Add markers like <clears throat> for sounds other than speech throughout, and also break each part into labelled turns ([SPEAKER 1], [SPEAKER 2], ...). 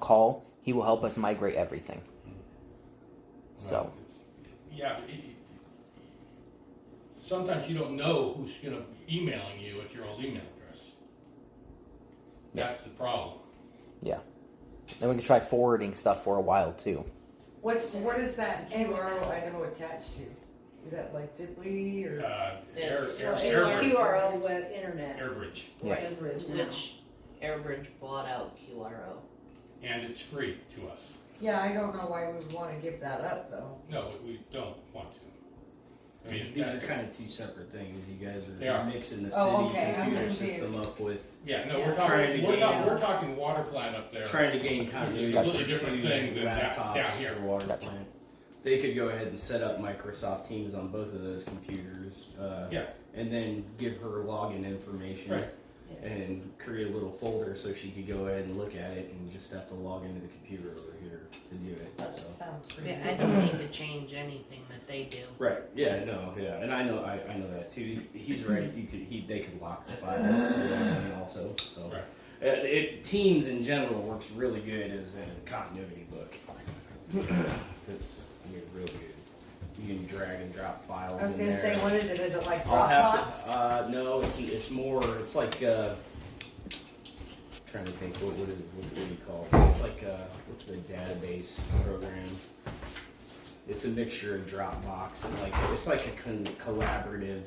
[SPEAKER 1] call, he will help us migrate everything. So,
[SPEAKER 2] Yeah. it- Sometimes you don't know who's gonna be emailing you at your old email address. That's the problem.
[SPEAKER 1] then we can try forwarding stuff for a while too.
[SPEAKER 3] What's, what is that QRO item attached to? Is that like Zipley
[SPEAKER 2] Uh,
[SPEAKER 3] or?
[SPEAKER 2] Air,
[SPEAKER 4] Yeah,
[SPEAKER 2] Air,
[SPEAKER 4] so
[SPEAKER 2] Air-
[SPEAKER 4] it's
[SPEAKER 2] Airbridge-
[SPEAKER 4] QRO web internet,
[SPEAKER 2] Airbridge,
[SPEAKER 1] Yeah.
[SPEAKER 3] Everbridge now?
[SPEAKER 4] which Airbridge bought out QRO.
[SPEAKER 2] and it's free to us.
[SPEAKER 3] Yeah, I don't know why we would wanna give that up though.
[SPEAKER 2] No, we- we don't want to. I
[SPEAKER 5] These,
[SPEAKER 2] mean,
[SPEAKER 5] these are
[SPEAKER 2] that-
[SPEAKER 5] kind of two separate things. You guys
[SPEAKER 2] They are.
[SPEAKER 5] are mixing the
[SPEAKER 3] Oh,
[SPEAKER 5] city
[SPEAKER 3] okay, I'm
[SPEAKER 5] computer
[SPEAKER 3] confused.
[SPEAKER 5] system up with,
[SPEAKER 2] Yeah, no, we're
[SPEAKER 5] Trying
[SPEAKER 2] talking,
[SPEAKER 5] to
[SPEAKER 2] we're
[SPEAKER 5] get
[SPEAKER 2] talking,
[SPEAKER 4] out.
[SPEAKER 2] we're talking water plant up there.
[SPEAKER 5] trying to gain continuity
[SPEAKER 2] That's a
[SPEAKER 5] between
[SPEAKER 2] different thing than that-
[SPEAKER 5] laptops
[SPEAKER 2] down here.
[SPEAKER 5] for water
[SPEAKER 1] Gotcha.
[SPEAKER 5] plant. They could go ahead and set up Microsoft Teams on both of those computers. Uh,
[SPEAKER 2] Yeah.
[SPEAKER 5] And then give her login information.
[SPEAKER 2] Right.
[SPEAKER 5] And create a little folder so she could go ahead and look at it and just have to log into the computer over here to do it.
[SPEAKER 3] That
[SPEAKER 5] So.
[SPEAKER 3] sounds pretty
[SPEAKER 4] Yeah, I
[SPEAKER 3] good.
[SPEAKER 4] don't need to change anything that they do.
[SPEAKER 5] Right. Yeah. No. Yeah. And I know. I, I know that too. He's right. You could. He. They could lock the file. and also. So.
[SPEAKER 2] Right.
[SPEAKER 5] Uh, It, Teams in general works really good as a continuity book. It's I mean really good. You can drag and drop files.
[SPEAKER 3] I was
[SPEAKER 5] in
[SPEAKER 3] gonna
[SPEAKER 5] there.
[SPEAKER 3] say, what is it? Is it like
[SPEAKER 5] I'll have
[SPEAKER 3] Dropbox?
[SPEAKER 5] to. Uh, no. It's it's more. It's like. Uh, trying to think. What what is what do you call it? It's like uh, what's the database program? It's a mixture of Dropbox and like it's like a con- collaborative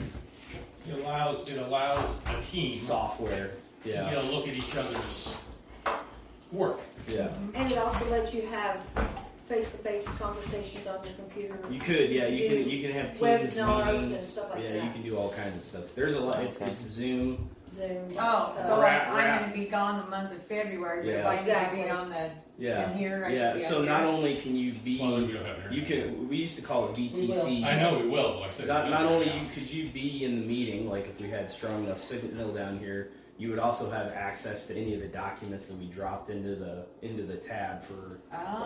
[SPEAKER 2] It allows, it allows a team to
[SPEAKER 5] software.
[SPEAKER 2] be
[SPEAKER 5] Yeah.
[SPEAKER 2] able to look at each other's work.
[SPEAKER 5] Yeah.
[SPEAKER 6] And it also lets you have face-to-face conversations on your computer.
[SPEAKER 5] You could, yeah, you
[SPEAKER 6] You
[SPEAKER 5] can,
[SPEAKER 6] do
[SPEAKER 5] you can have teams
[SPEAKER 6] webinars and
[SPEAKER 5] meetings.
[SPEAKER 6] stuff like
[SPEAKER 5] Yeah, you
[SPEAKER 6] that.
[SPEAKER 5] can do all kinds of stuff. There's a lot, it's,
[SPEAKER 1] Okay.
[SPEAKER 5] it's Zoom.
[SPEAKER 6] Zoom.
[SPEAKER 3] Oh, so
[SPEAKER 6] uh,
[SPEAKER 3] like
[SPEAKER 2] Wrap,
[SPEAKER 3] I'm
[SPEAKER 2] wrap.
[SPEAKER 3] gonna be gone the month of February, but if
[SPEAKER 5] Yeah.
[SPEAKER 3] I need to
[SPEAKER 6] Exactly.
[SPEAKER 3] be on the,
[SPEAKER 5] Yeah,
[SPEAKER 3] in here, I
[SPEAKER 5] yeah.
[SPEAKER 3] can be
[SPEAKER 5] So
[SPEAKER 3] up
[SPEAKER 5] not
[SPEAKER 3] here.
[SPEAKER 5] only can you
[SPEAKER 2] Well, then we
[SPEAKER 5] be,
[SPEAKER 2] don't have internet.
[SPEAKER 5] you can, we used to call it
[SPEAKER 6] We
[SPEAKER 5] VTC.
[SPEAKER 2] I know we will, but I said.
[SPEAKER 5] Not,
[SPEAKER 2] we
[SPEAKER 5] not
[SPEAKER 2] don't
[SPEAKER 5] only
[SPEAKER 2] right
[SPEAKER 5] you, could you be in the meeting, like if we had strong enough signal down here, you would also have access to any of the documents that we dropped into the, into the tab for,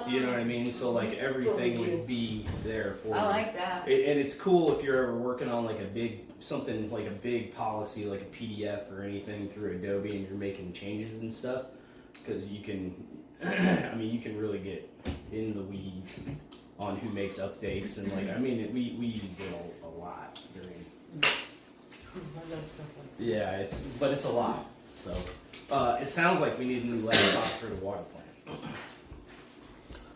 [SPEAKER 5] you know what I mean? So like everything would be there for
[SPEAKER 3] Oh,
[SPEAKER 5] you.
[SPEAKER 3] I like <laughs> that.
[SPEAKER 5] It, and it's cool if you're ever working on like a big something like a big policy like a PDF or anything through Adobe and you're making changes and stuff because you can <clears throat> I mean you can really get in the weeds on who makes updates and like I mean it, we we used it a, a lot during yeah it's but it's a lot so uh, it sounds like we need a new laptop for the water plant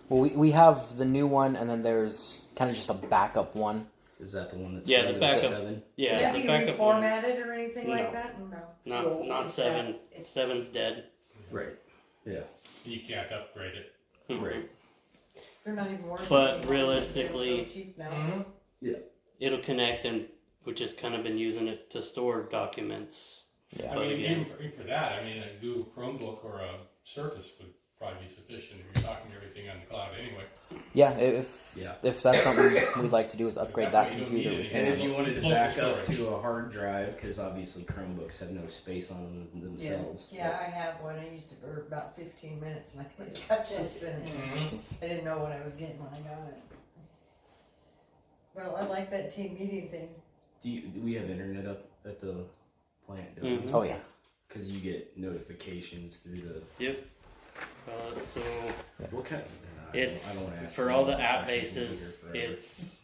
[SPEAKER 1] Well, we, we have the new one, and then there's kind of just a backup one.
[SPEAKER 5] is that the one that's
[SPEAKER 7] Yeah, the
[SPEAKER 5] Windows
[SPEAKER 7] backup.
[SPEAKER 5] 7?
[SPEAKER 3] Would
[SPEAKER 7] Yeah,
[SPEAKER 3] that
[SPEAKER 7] the
[SPEAKER 3] be
[SPEAKER 7] backup one.
[SPEAKER 3] reformatted or anything like that? No.
[SPEAKER 7] Not, not
[SPEAKER 3] It's that-
[SPEAKER 7] seven.
[SPEAKER 3] it's-
[SPEAKER 7] Seven's dead.
[SPEAKER 5] right yeah
[SPEAKER 2] now. You can't upgrade it.
[SPEAKER 5] Right.
[SPEAKER 3] They're not even worth it
[SPEAKER 7] But
[SPEAKER 3] anymore. They're so
[SPEAKER 7] realistically-
[SPEAKER 3] cheap now.
[SPEAKER 7] It'll connect and we've just kind of been using it to store documents.
[SPEAKER 1] Yeah.
[SPEAKER 2] I
[SPEAKER 7] But
[SPEAKER 2] mean,
[SPEAKER 7] again-
[SPEAKER 2] even for, even for that, I mean, a Google Chromebook or a Surface would probably be sufficient if you're talking to everything on the cloud anyway.
[SPEAKER 1] Yeah, i- if
[SPEAKER 5] Yeah.
[SPEAKER 1] if that's something we'd like to do is upgrade that
[SPEAKER 2] You don't
[SPEAKER 1] computer.
[SPEAKER 2] need
[SPEAKER 1] We
[SPEAKER 2] it
[SPEAKER 5] And if
[SPEAKER 1] can.
[SPEAKER 5] you wanted to
[SPEAKER 2] Local
[SPEAKER 5] back up
[SPEAKER 2] storage.
[SPEAKER 5] to a hard drive, because obviously Chromebooks have no space on them themselves.
[SPEAKER 3] Yeah, I have one. I used it for about fifteen minutes and I couldn't touch it and I didn't know what I was getting when I got it. Well, I like that team meeting thing.
[SPEAKER 5] Do, you, do we have internet up at the plant?
[SPEAKER 7] Mhm.
[SPEAKER 1] Oh yeah,
[SPEAKER 5] Because you get notifications through the.
[SPEAKER 7] Uh, so
[SPEAKER 5] What kind? I don't-
[SPEAKER 7] it's
[SPEAKER 5] I don't wanna ask
[SPEAKER 7] for
[SPEAKER 5] you
[SPEAKER 7] all the
[SPEAKER 5] about
[SPEAKER 7] app
[SPEAKER 5] questions in
[SPEAKER 7] bases.
[SPEAKER 5] here forever.
[SPEAKER 7] It's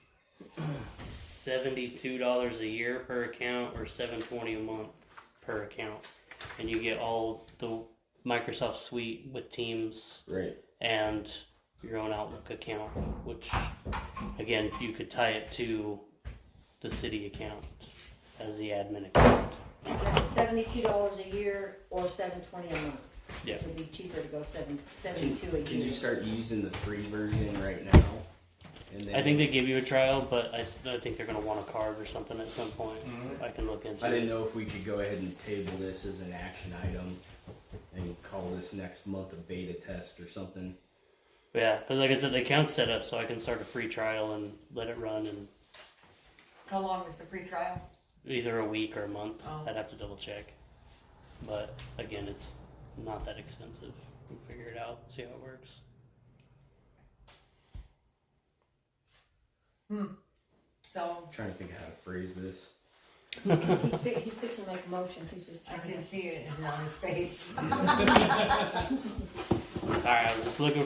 [SPEAKER 7] seventy-two dollars a year per account, or seven twenty a month per account, and you get all the Microsoft Suite with Teams
[SPEAKER 5] right.
[SPEAKER 7] and your own Outlook account, which again you could tie it to the city account as the admin account.
[SPEAKER 4] Seventy-two dollars a year or seven twenty a month.
[SPEAKER 7] Yeah.
[SPEAKER 4] It'd be cheaper to go seven, seventy-two a year.
[SPEAKER 5] Can you start using the free version right now? And then
[SPEAKER 7] I think they give you a trial, but I, I think they're gonna want a card or something at some point.
[SPEAKER 2] Mhm.
[SPEAKER 7] I can look into
[SPEAKER 5] Mm-hmm. I didn't
[SPEAKER 7] it.
[SPEAKER 5] know if we could go ahead and table this as an action item, and call this next month a beta test or something.
[SPEAKER 7] Yeah, because like I said, the account's set up, so I can start a free trial and let it run in
[SPEAKER 3] How long was the free trial?
[SPEAKER 7] either a week or a month.
[SPEAKER 3] Oh.
[SPEAKER 7] I'd have to double check. But again, it's not that expensive. We'll figure it out, see how it works.
[SPEAKER 3] So
[SPEAKER 5] trying to think of how to phrase this.
[SPEAKER 4] He's fi- he's fixing to make a motion, he's just
[SPEAKER 3] I
[SPEAKER 4] trying
[SPEAKER 3] can
[SPEAKER 4] to.
[SPEAKER 3] see it on his face.
[SPEAKER 7] Sorry, I was just looking